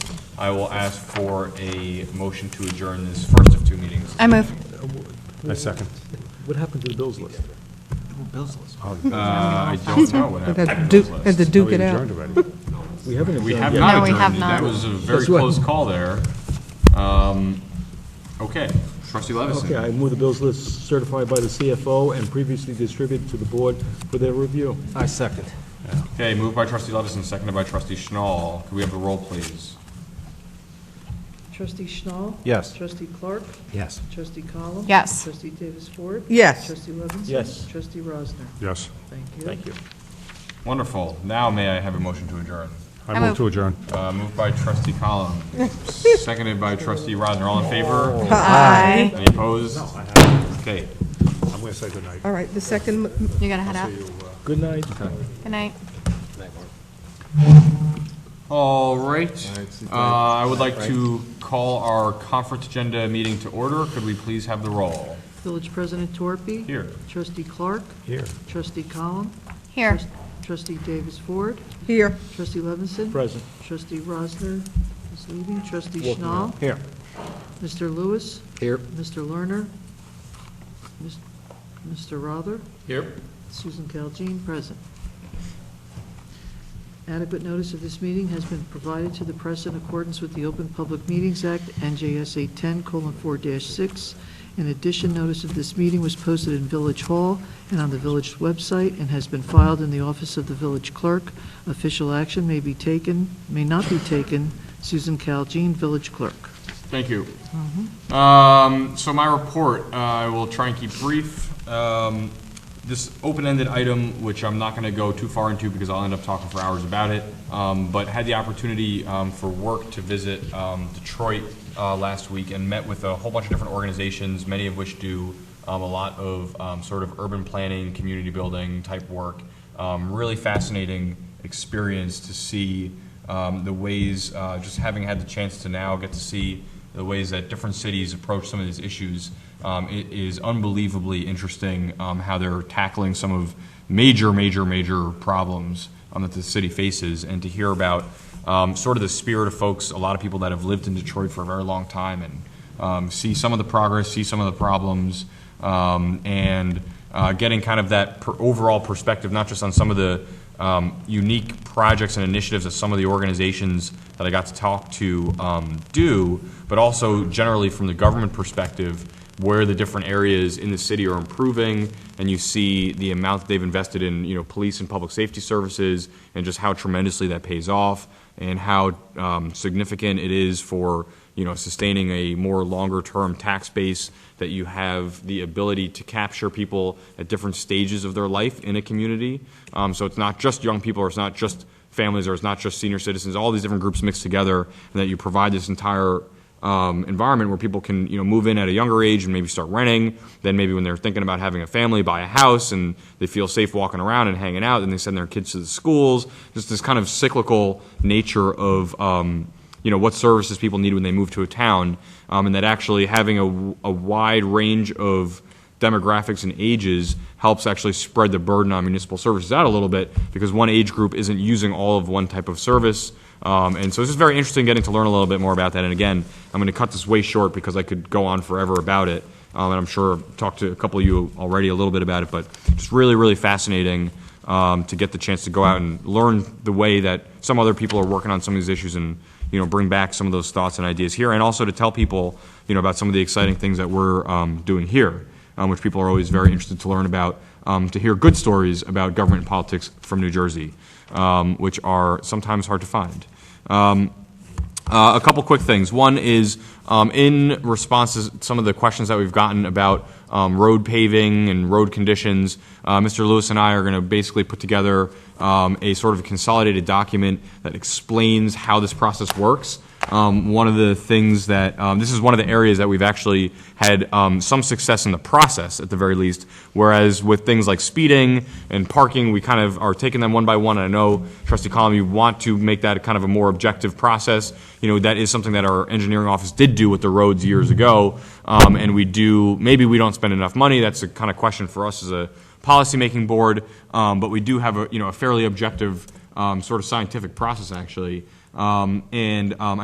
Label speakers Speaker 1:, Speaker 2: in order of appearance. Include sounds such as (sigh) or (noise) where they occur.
Speaker 1: I will ask for a motion to adjourn this first of two meetings.
Speaker 2: I move.
Speaker 3: I second.
Speaker 4: What happened to the bills list?
Speaker 1: Uh, I don't know what
Speaker 2: We've
Speaker 1: happened.
Speaker 2: had
Speaker 1: to
Speaker 2: Duke,
Speaker 1: those
Speaker 2: had to
Speaker 1: lists.
Speaker 2: duke
Speaker 3: We
Speaker 2: it out.
Speaker 3: adjourned already.
Speaker 4: We haven't
Speaker 1: We
Speaker 4: adjourned
Speaker 1: have
Speaker 4: yet.
Speaker 1: not
Speaker 2: No, we have
Speaker 1: adjourned. That
Speaker 2: not.
Speaker 1: was a very
Speaker 4: That's right.
Speaker 1: close call there. Um, Okay, trustee
Speaker 4: Okay, I
Speaker 1: Levison.
Speaker 4: move the bills list certified by the CFO and previously distributed to the board for their review.
Speaker 5: I second.
Speaker 1: Okay, moved by trustee Levison, seconded by trustee Schnall. Could we have the roll, please?
Speaker 6: Trustee Schnall?
Speaker 5: Yes.
Speaker 6: Trustee Clark?
Speaker 5: Yes.
Speaker 6: Trustee Column?
Speaker 2: Yes.
Speaker 6: Trustee Davis Ford?
Speaker 2: Yes.
Speaker 6: Trustee Levinson?
Speaker 4: Yes.
Speaker 6: Trustee Rosner?
Speaker 3: Yes.
Speaker 6: Thank you.
Speaker 4: you.
Speaker 1: Wonderful. Now may I have a motion to adjourn?
Speaker 3: I move to adjourn.
Speaker 1: Uh, Moved by trustee
Speaker 2: (laughs)
Speaker 1: Column, seconded by trustee Rosner. All in favor?
Speaker 2: Aye.
Speaker 1: Any opposed? Okay.
Speaker 3: I'm going to say goodnight.
Speaker 2: All right, the second. You gotta head out.
Speaker 4: Good night.
Speaker 2: Good night.
Speaker 1: All right. Uh, I would like to call our conference agenda meeting to order. Could we please have the roll?
Speaker 6: Village President Torpe?
Speaker 1: Here.
Speaker 6: Trustee Clark?
Speaker 3: Here.
Speaker 6: Trustee Column?
Speaker 2: Here.
Speaker 6: Trust- Trustee Davis Ford?
Speaker 2: Here.
Speaker 6: Trustee Levinson?
Speaker 4: Present.
Speaker 6: Trustee Rosner is leaving. Trustee Schnall?
Speaker 5: Here.
Speaker 6: Mr. Lewis?
Speaker 5: Here.
Speaker 6: Mr. Lerner? Mis- Mr. Rother?
Speaker 1: Here.
Speaker 6: Susan Caljean, present. Adequate notice of this meeting has been provided to the press in accordance with the Open Public Meetings Act, NJSA 10:4-6. In addition, notice of this meeting was posted in Village Hall and on the village website and has been filed in the office of the village clerk. Official action may be taken, may not be taken. Susan Caljean, village clerk.
Speaker 1: Thank you. Um, So my report, uh, I will try and keep brief. Um, This open-ended item, which I'm not going to go too far into because I'll end up talking for hours about it, um, but had the opportunity um, for work to visit um, Detroit uh, last week and met with a whole bunch of different organizations, many of which do um, a lot of um, sort of urban planning, community building type work. Um, Really fascinating experience to see um, the ways, uh, just having had the chance to now get to see the ways that different cities approach some of these issues. Um, it is unbelievably interesting um, how they're tackling some of major, major, major problems um, that the city faces, and to hear about um, sort of the spirit of folks, a lot of people that have lived in Detroit for a very long time, and um, see some of the progress, see some of the problems, um, and uh, getting kind of that per- overall perspective, not just on some of the um, unique projects and initiatives that some of the organizations that I got to talk to um, do, but also generally from the government perspective, where the different areas in the city are improving, and you see the amount that they've invested in, you know, police and public safety services, and just how tremendously that pays off, and how um, significant it is for, you know, sustaining a more longer-term tax base, that you have the ability to capture people at different stages of their life in a community. Um, So it's not just young people, or it's not just families, or it's not just senior citizens, all these different groups mixed together, and that you provide this entire um, environment where people can you know move in at a younger age and maybe start renting. Then maybe when they're thinking about having a family, buy a house, and they feel safe walking around and hanging out. And they send their kids to the schools. Just this kind of cyclical nature of um, you know what services people need when they move to a town, um, and that actually having a, a wide range of demographics and ages helps actually spread the burden on municipal services out a little bit because one age group isn't using all of one type of service. Um, and so it's just very interesting getting to learn a little bit more about that. And again, I'm going to cut this way short because I could go on forever about it. Um, and I'm sure I've talked to a couple of you already a little bit about it, but just really, really fascinating um, to get the chance to go out and learn the way that some other people are working on some of these issues and you know bring back some of those thoughts and ideas here, and also to tell people you know about some of the exciting things that we're um, doing here, um, which people are always very interested to learn about, um, to hear good stories about government and politics from New Jersey, um, which are sometimes hard to find. Uh, a couple quick things. One is um, in response to some of the questions that we've gotten about um, road paving and road conditions, uh, Mr. Lewis and I are going to basically put together um, a sort of consolidated document that explains how this process works. Um, one of the things that um, this is one of the areas that we've actually had um, some success in the process, at the very least. Whereas with things like speeding and parking, we kind of are taking them one by one. And I know, Trustee Column, you want to make that kind of a more objective process. You know, that is something that our engineering office did do with the roads years ago. Um, and we do, maybe we don't spend enough money. That's a kind of question for us as a policymaking board. Um, but we do have a, you know, a fairly objective um, sort of scientific process, actually. Um, and um,